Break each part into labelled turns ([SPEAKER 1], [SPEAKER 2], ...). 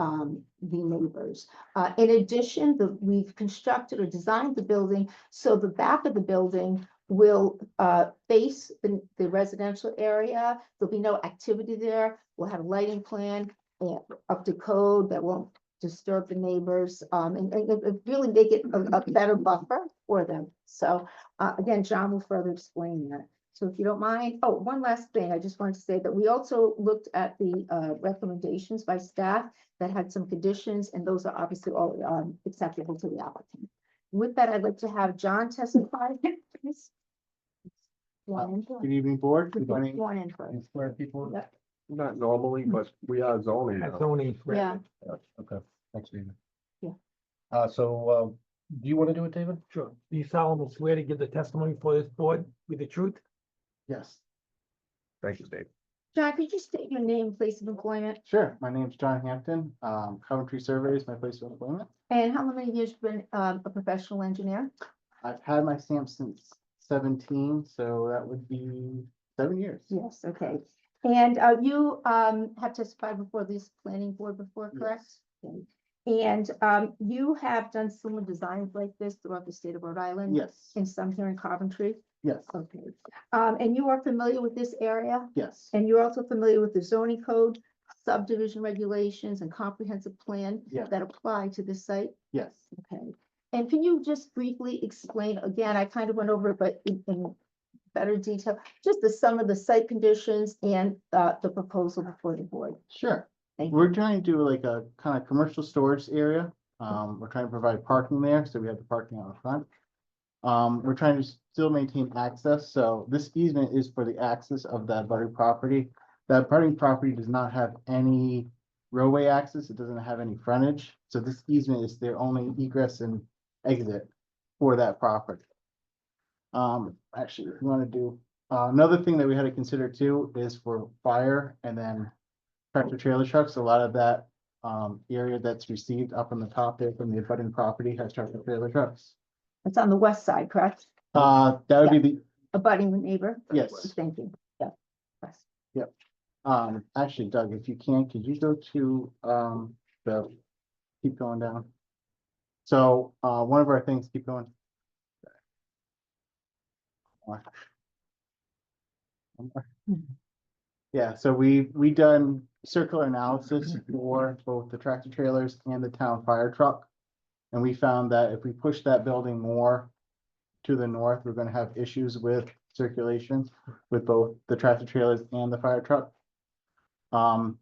[SPEAKER 1] um, the neighbors. Uh, in addition, the, we've constructed or designed the building, so the back of the building will, uh, face the, the residential area. There'll be no activity there. We'll have a lighting plan, uh, up to code that won't disturb the neighbors, um, and, and- and really make it a, a better buffer for them. So, uh, again, John will further explain that. So if you don't mind, oh, one last thing, I just wanted to say that we also looked at the, uh, recommendations by staff that had some conditions, and those are obviously all, um, acceptable to the applicant. With that, I'd like to have John testify. Please. You want in first?
[SPEAKER 2] Good evening, board. Good
[SPEAKER 1] You
[SPEAKER 2] morning. Hmm.
[SPEAKER 1] want in first?
[SPEAKER 2] Square people.
[SPEAKER 1] Yep.
[SPEAKER 3] Not normally, but we are zoning now.
[SPEAKER 2] Tony.
[SPEAKER 1] Yeah.
[SPEAKER 2] Okay, thanks, David.
[SPEAKER 1] Yeah.
[SPEAKER 2] Uh, so, um, do you want to do it, David?
[SPEAKER 4] Sure. Do you solemnly swear to give the testimony before this board with the truth?
[SPEAKER 2] Yes.
[SPEAKER 3] Thank you, Dave.
[SPEAKER 1] John, could you state your name, place of employment,
[SPEAKER 2] Sure. My name's John Hampton. Um, Coventry Survey is my place of employment.
[SPEAKER 1] and how many years you've been, um, a professional engineer?
[SPEAKER 2] I've had my stamp since seventeen, so that would be seven years.
[SPEAKER 1] Yes, okay. And uh, you um, have testified before this planning board before, correct? Okay. And um, you have done similar designs like this throughout the state of Rhode Island?
[SPEAKER 2] Yes,
[SPEAKER 1] And some here in Coventry?
[SPEAKER 2] yes,
[SPEAKER 1] Okay. Um, And you are familiar with this area?
[SPEAKER 2] yes,
[SPEAKER 1] And you're also familiar with the zoning code, subdivision regulations, and comprehensive plan
[SPEAKER 2] Yeah.
[SPEAKER 1] that apply to this site?
[SPEAKER 2] yes.
[SPEAKER 1] Okay, and can you just briefly explain, again, I kind of went over it, but in, in better detail, just the sum of the site conditions and, uh, the proposal before the board?
[SPEAKER 2] Sure.
[SPEAKER 1] Thank you. Hmm.
[SPEAKER 2] We're trying to do like a kind of commercial storage area. Um, we're trying to provide parking there, so we have the parking out front. Um, we're trying to still maintain access, so this easement is for the access of that budding property. That budding property does not have any roadway access, it doesn't have any frontage, so this easement is their only egress and exit for that property. Um, actually, if you wanna do, uh, another thing that we had to consider too is for fire and then tractor trailer trucks, a lot of that um area that's received up on the top there from the abutting property has tractor trailer trucks.
[SPEAKER 1] It's on the west side, correct?
[SPEAKER 2] Uh, that would be the,
[SPEAKER 1] Abutting the neighbor?
[SPEAKER 2] Yes.
[SPEAKER 1] Thank you, yeah. Yes.
[SPEAKER 2] um, actually Doug, if you can, could you go to um the, keep going down. So uh one of our things, keep going. Yeah, so we, we done circular analysis for both the tractor trailers and the town fire truck. And we found that if we push that building more to the north, we're gonna have issues with circulation with both the tractor trailers and the fire truck. Um,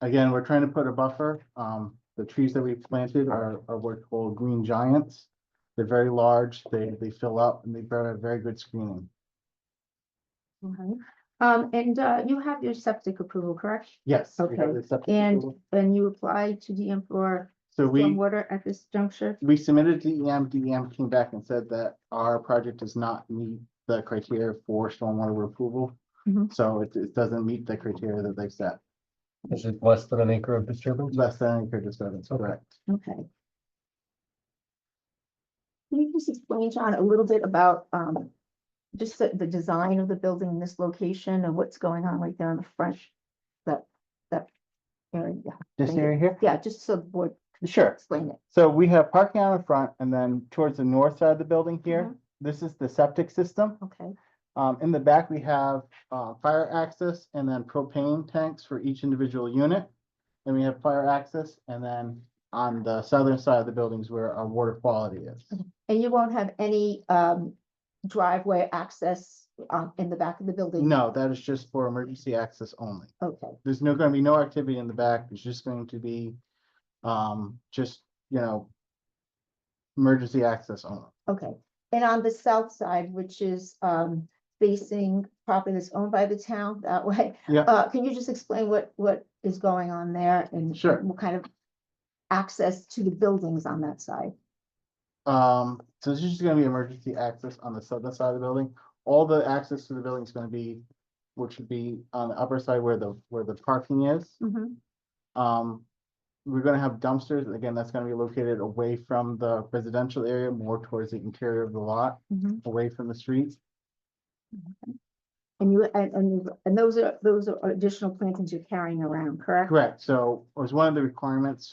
[SPEAKER 2] again, we're trying to put a buffer. Um, the trees that we planted are, are what called green giants. They're very large, they, they fill up and they provide very good screening.
[SPEAKER 1] Okay. Um, and, uh, you have your septic approval, correct?
[SPEAKER 2] Yes. we have
[SPEAKER 1] Okay,
[SPEAKER 2] the septic
[SPEAKER 1] And,
[SPEAKER 2] approval.
[SPEAKER 1] and you applied to DM for
[SPEAKER 2] So we.
[SPEAKER 1] stormwater at this juncture?
[SPEAKER 2] we submitted to E DEM, DEM came back and said that our project does not meet the criteria for stormwater approval.
[SPEAKER 1] Mhm.
[SPEAKER 2] So it, it doesn't meet the criteria that they've set,
[SPEAKER 5] Is it less than an acre of disturbance?
[SPEAKER 2] less than an acre disturbance,
[SPEAKER 5] Okay.
[SPEAKER 2] correct?
[SPEAKER 1] Okay. Can you just explain, John, a little bit about, um, just the, the design of the building in this location and what's going on right there on the front? That, that area, yeah,
[SPEAKER 2] This
[SPEAKER 1] Thank you.
[SPEAKER 2] area here?
[SPEAKER 1] yeah, just so the board
[SPEAKER 2] Sure.
[SPEAKER 1] explain it.
[SPEAKER 2] So we have parking out in front and then towards the north side of the building here, this is the septic system.
[SPEAKER 1] Okay,
[SPEAKER 2] Um, in the back, we have, uh, fire access and then propane tanks for each individual unit. Then we have fire access and then on the southern side of the buildings where our water quality is.
[SPEAKER 1] and you won't have any, um, driveway access, um, in the back of the building?
[SPEAKER 2] No, that is just for emergency access only.
[SPEAKER 1] Okay,
[SPEAKER 2] There's no, gonna be no activity in the back. It's just going to be, um, just, you know, emergency access only.
[SPEAKER 1] okay. And on the south side, which is, um, facing property that's owned by the town that way,
[SPEAKER 2] Yeah,
[SPEAKER 1] Uh, can you just explain what, what is going on there and?
[SPEAKER 2] Sure.
[SPEAKER 1] What kind of access to the buildings on that side?
[SPEAKER 2] um, so this is just gonna be emergency access on the southern side of the building. All the access to the building is gonna be, which would be on the upper side where the, where the parking is. Um, we're gonna have dumpsters. Again, that's gonna be located away from the residential area, more towards the interior of the lot, away from the street.
[SPEAKER 1] And you, and, and, you- and those are, those are additional plantings you're carrying around, correct?
[SPEAKER 2] Correct, so it was one of the requirements